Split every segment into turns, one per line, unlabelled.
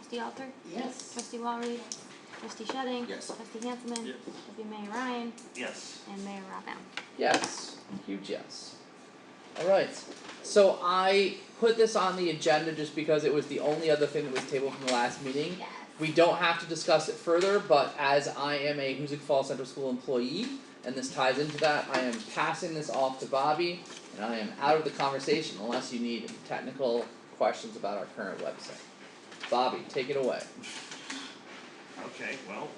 Trustee Alter?
Yes.
Trustee Walry? Trustee Shedding?
Yes.
Trustee Hanselman?
Yes.
Deputy Mayor Ryan
Yes.
and Mayor Rob Allen.
Yes, huge yes. Alright, so I put this on the agenda just because it was the only other thing that was tabled from the last meeting.
Yes.
We don't have to discuss it further, but as I am a Hoosick Falls Central School employee, and this ties into that, I am passing this off to Bobby, and I am out of the conversation unless you need technical questions about our current website. Bobby, take it away.
Okay, well,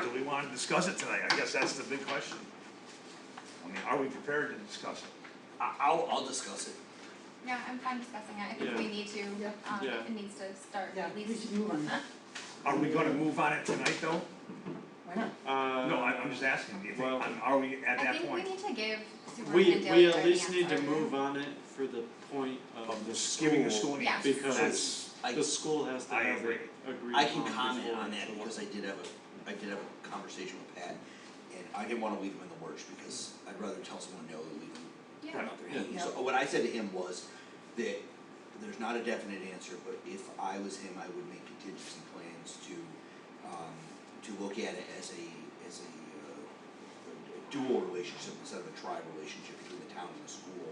do we wanna discuss it tonight? I guess that's the big question. I mean, are we prepared to discuss it?
I, I'll, I'll discuss it.
No, I'm fine discussing it, I think
Yeah.
we need to,
Yeah.
um,
Yeah.
it needs to start
Yeah,
at
we
least.
should move on.
Are we gonna move on it tonight though?
Why not?
Uh,
No, I, I'm just asking, do you think,
well-
I'm- are we at
I
that
think we
point?
need to give
We,
Superintendent Daly
we
our
at least
hands
need to
earlier.
move on it for the point of the school.
Giving the school an
Yeah.
answer.
Because
That's, I,
the school has to
I
have
agree.
it agreed
I can
upon
comment
before
on
it's
that because I did have a, I did have a conversation with Pat. And I didn't wanna leave him in the lurch because I'd rather tell someone no than leave him
Yeah.
out there hanging.
Yeah.
So what I said to him was that there's not a definite answer, but if I was him, I would make contingency plans to, um, to look at it as a, as a, uh, a dual relationship instead of a tribe relationship between the town and the school.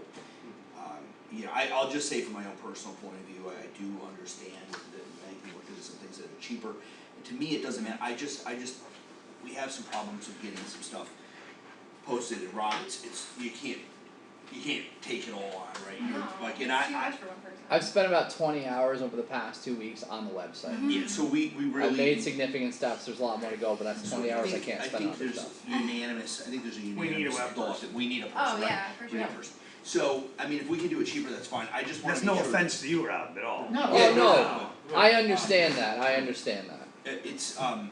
Um, you know, I, I'll just say from my own personal point of view, I do understand that many people do some things that are cheaper. And to me, it doesn't matter, I just, I just, we have some problems with getting some stuff posted and Rob, it's, it's, you can't, you can't take it all on, right? You're
No,
Like, and
it's
I,
too
I,
much for one person.
I've spent about twenty hours over the past two weeks on the website.
Mm-hmm.
yeah, so we, we really.
I've made significant steps, there's a lot more to go, but that's
so
twenty
I
hours I
think-
can't spend on this stuff.
I think there's unanimous, I think there's a
need a
unanimous
web
thought
person.
that we need a person,
Oh,
right?
yeah, for
We need a
sure.
person. So, I mean, if we can do it cheaper, that's fine, I just wanna
That's
make
no
sure that-
offense to you, Rob, at all.
No.
Yeah,
Yeah,
Oh, no,
no.
I understand that, I understand that.
It, it's, um,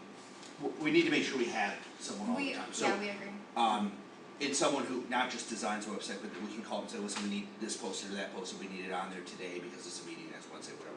w- we need to make sure we have someone all
We,
the
yeah,
time, so.
we agree.
um, it's someone who not just designs a website, but that we can call and say, listen, we need this posted or that posted, we need it on there today because it's a meeting, that's Wednesday, whatever.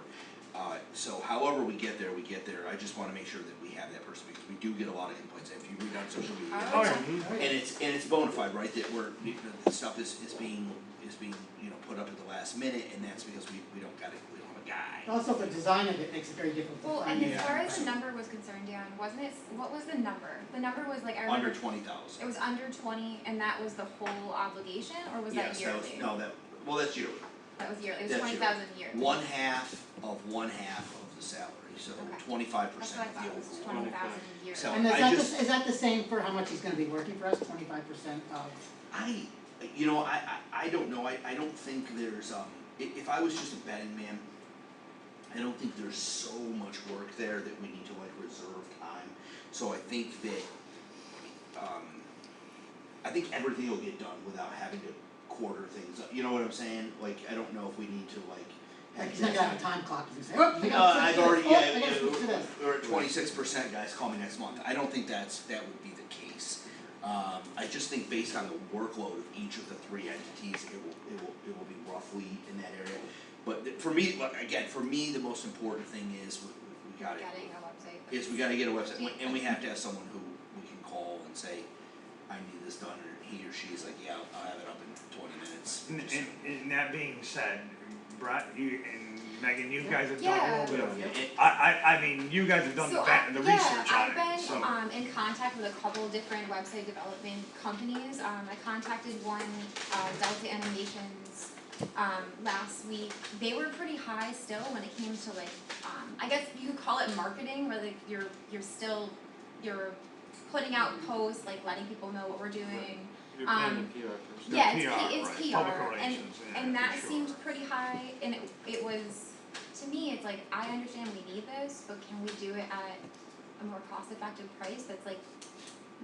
Uh, so however we get there, we get there, I just wanna make sure that we have that person, because we do get a lot of complaints, if you read on social media.
Oh,
All
yeah.
right.
Alright.
And it's, and it's bona fide, right, that we're, the- the stuff is, is being, is being, you know, put up at the last minute, and that's because we, we don't got it, we don't have a guy.
Also, the design of it makes it very difficult. to
Well,
find
and as
Yeah.
far as the number was concerned, Dan, wasn't it, what was the number? The number was like, I remember.
Under twenty thousand.
It was under twenty and that was the whole obligation or was that yearly?
Yes, that was, no, that, well, that's yearly.
That was yearly, it was
That's
twenty
yearly.
thousand yearly.
One half of one half of the salary, so
Okay.
twenty-five
That's
percent
what I
of the
thought, it was
overall.
twenty thousand yearly.
So-
And is
I
that the,
just-
is that the same for how much he's gonna be working for us, twenty-five percent of,
I, you know, I, I, I don't know, I, I don't think there's, um, i- if I was just a betting man, I don't think there's so much work there that we need to like reserve time, so I think that, um, I think everything will get done without having to quarter things up, you know what I'm saying? Like, I don't know if we need to like have
like, he's not gonna have a
designated-
time clock, he's gonna say, oh, I
Uh,
gotta
I've
switch
already,
to
yeah,
this, oh, I gotta switch to this.
we're at twenty-six percent, guys, call me next month, I don't think that's, that would be the case. Um, I just think based on the workload of each of the three entities, it will, it will, it will be roughly in that area. But th- for me, like, again, for me, the most important thing is, we, we- we
Got
gotta,
it, a website.
is we gotta get a website,
Yeah.
and we have to have someone who we can call and say, I need this done, or he or she's like, yeah, I'll- I'll have it up in twenty minutes.
And, and, and that being said, Brett, you and Megan, you guys have done a
Yeah.
little bit of,
Yeah.
I, I, I mean, you guys have done the
So
ba-
I,
the
yeah,
research on it,
I've
so.
been um in contact with a couple different website development companies, um I contacted one, uh Delta Animations um last week, they were pretty high still when it came to like, um I guess you could call it marketing, where like you're you're still, you're putting out posts, like letting people know what we're doing,
You're paying
um,
the PR person.
The
yeah, it's
PR,
P- it's
right,
PR,
public
and-
relations, yeah,
And
for
that
sure.
seemed pretty high, and it, it was, to me, it's like, I understand we need this, but can we do it at a more cost-effective price that's like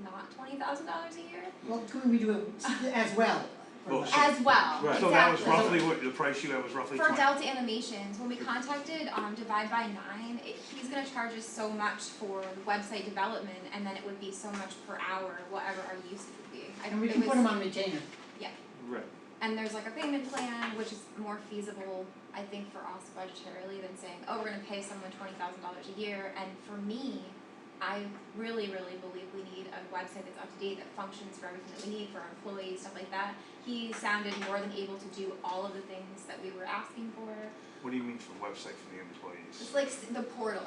not twenty thousand dollars a year?
Well, couldn't we do it as well?
Well, so-
As well, exactly.
Right.
So that was roughly what, the price you had was roughly
For
twenty.
Delta Animations, when we contacted, um, Divide by Nine, it, he's gonna charge us so much for website development, and then it would be so much per hour, whatever our usage would be. I
And we
it
can
was-
put him on retainer,
Right.
And there's like a payment plan, which is more feasible, I think, for us budgetarily than saying, oh, we're gonna pay someone twenty thousand dollars a year, and for me, I really, really believe we need a website that's up to date, that functions for everything that we need for our employees, stuff like that. He sounded more than able to do all of the things that we were asking for,
What do you mean for website for the
just
employees?
like s- the portal